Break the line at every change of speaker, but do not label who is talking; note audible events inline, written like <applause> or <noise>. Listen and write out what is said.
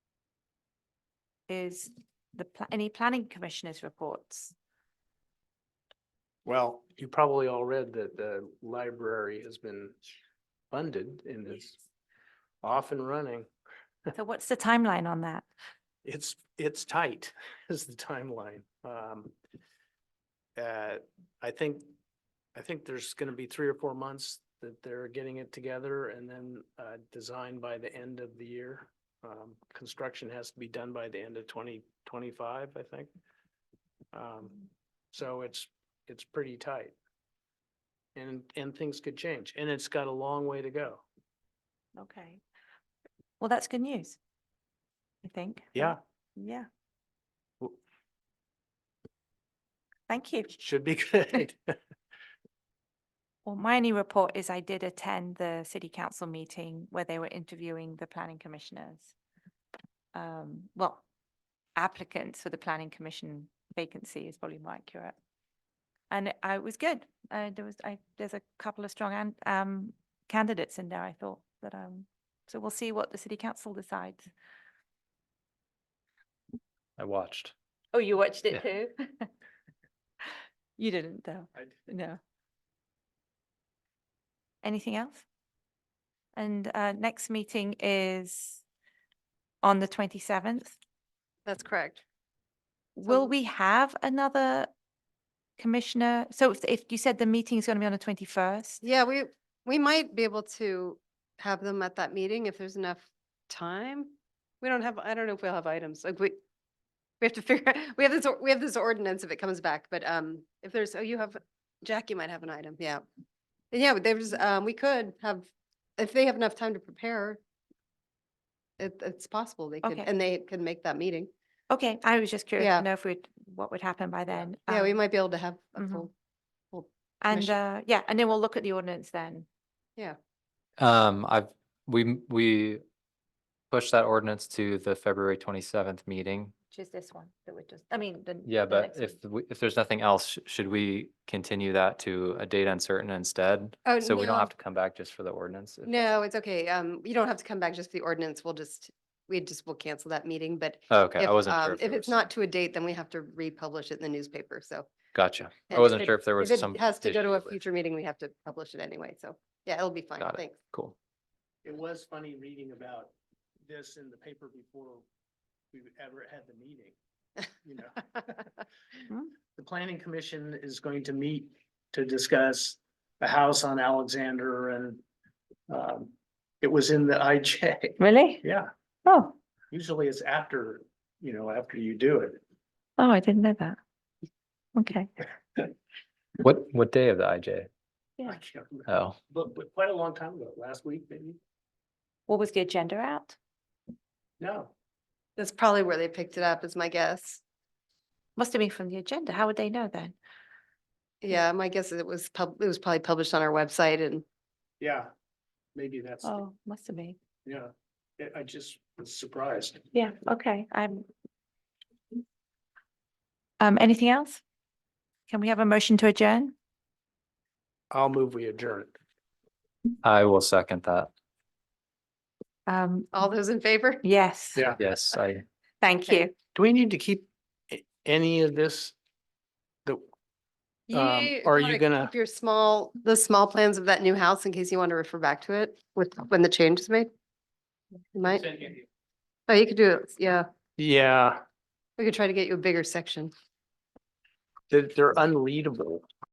is the, pla- any planning commissioners' reports?
Well, you probably all read that the library has been funded and is off and running.
So what's the timeline on that?
It's, it's tight <laughs> is the timeline. Um, uh, I think, I think there's going to be three or four months that they're getting it together and then, uh, design by the end of the year. Um, construction has to be done by the end of twenty twenty-five, I think. Um, so it's, it's pretty tight. And, and things could change and it's got a long way to go.
Okay. Well, that's good news. I think.
Yeah,
Yeah.
W-
Thank you.
should be <laughs> good.
Well, my only report is I did attend the city council meeting where they were interviewing the planning commissioners. Um, well, applicants for the planning commission vacancy is probably more accurate. And it- I it was good. Uh, there was, I, there's a couple of strong and, um, candidates in there, I thought that, um, so we'll see what the city council decides.
I watched.
Oh, you watched
it
too? <laughs> You didn't though.
I
No. Anything else? And uh, next meeting is on the twenty-seventh.
That's correct.
Will
So-
we have another commissioner? So if- if you said the meeting is going to be on the twenty-first?
Yeah, we, we might be able to have them at that meeting if there's enough time. We don't have, I don't know if we'll have items, like we, we have to figure, we have this, or- we have this ordinance if it comes back, but um, if there's, oh, you have, Jackie might have an item, yeah. And yeah, but there's, um, we could have, if they have enough time to prepare, it, it's possible they could,
Okay.
and they can make that meeting.
Okay, I was just curious
Yeah.
to know if we'd, what would happen by then.
Yeah, we
Um,
might be able to have a
mhm.
full,
And
commission-
uh, yeah, and then we'll look at the ordinance then.
Um, I've, we, m- we pushed that ordinance to the February twenty-seventh meeting.
Which is this one that we're just, I mean, the.
Yeah,
the
but
next
if,
one.
we- if there's nothing else, sh- should we continue that to a date uncertain instead?
Oh,
So we don't
no.
have to come back just for the ordinance? if-
no, it's okay. Um, you don't have to come back just for the ordinance. We'll just, we just will cancel that meeting, but
Oh, Okay,
If,
I wasn't sure.
um,
there
If it's
was-
not to a date, then we have to republish it in the newspaper, so.
Gotcha.
if
I wasn't
it-
sure if there was
If
some.
it has to go
issue
to a
with-
future meeting, we have to publish it anyway, so, yeah, it'll be fine,
Got it.
thanks.
Cool.
It was funny reading about this in the paper before we ever had the meeting, you know?
<laughs> Hmm.
The planning commission is going to meet to discuss the house on Alexander and um, it was in the <laughs> IJ.
Really?
Yeah,
Oh,
usually it's after, you know, after you do it.
oh, I didn't know that. Okay.
What, what day of the IJ?
I can't remember.
Oh,
But, but quite a long time ago, last week maybe?
What was the agenda out?
No,
That's probably where they picked it up, is my guess.
Must have been from the agenda. How would they know then?
Hmm.
Yeah, my guess is it was pub, it was probably published on our website and,
yeah, maybe that's,
Oh, must have been.
yeah. I- I just was surprised.
Yeah, okay, I'm. Um, anything else? Can we have a motion to adjourn?
I'll move we adjourn.
I will second that.
Um,
all
Hmm.
those in favor? <laughs>
yes,
Yeah.
Yes, I.
thank
Okay.
you.
Do we need to keep a- any of this? The, Um,
You
are you
wanna
gonna-
keep Your small, the small plans of that new house in case you want to refer back to it with, when the change is made? You might, oh, you could do it, yeah,
yeah,
we could try to get you a bigger section.
they're, they're unreadable.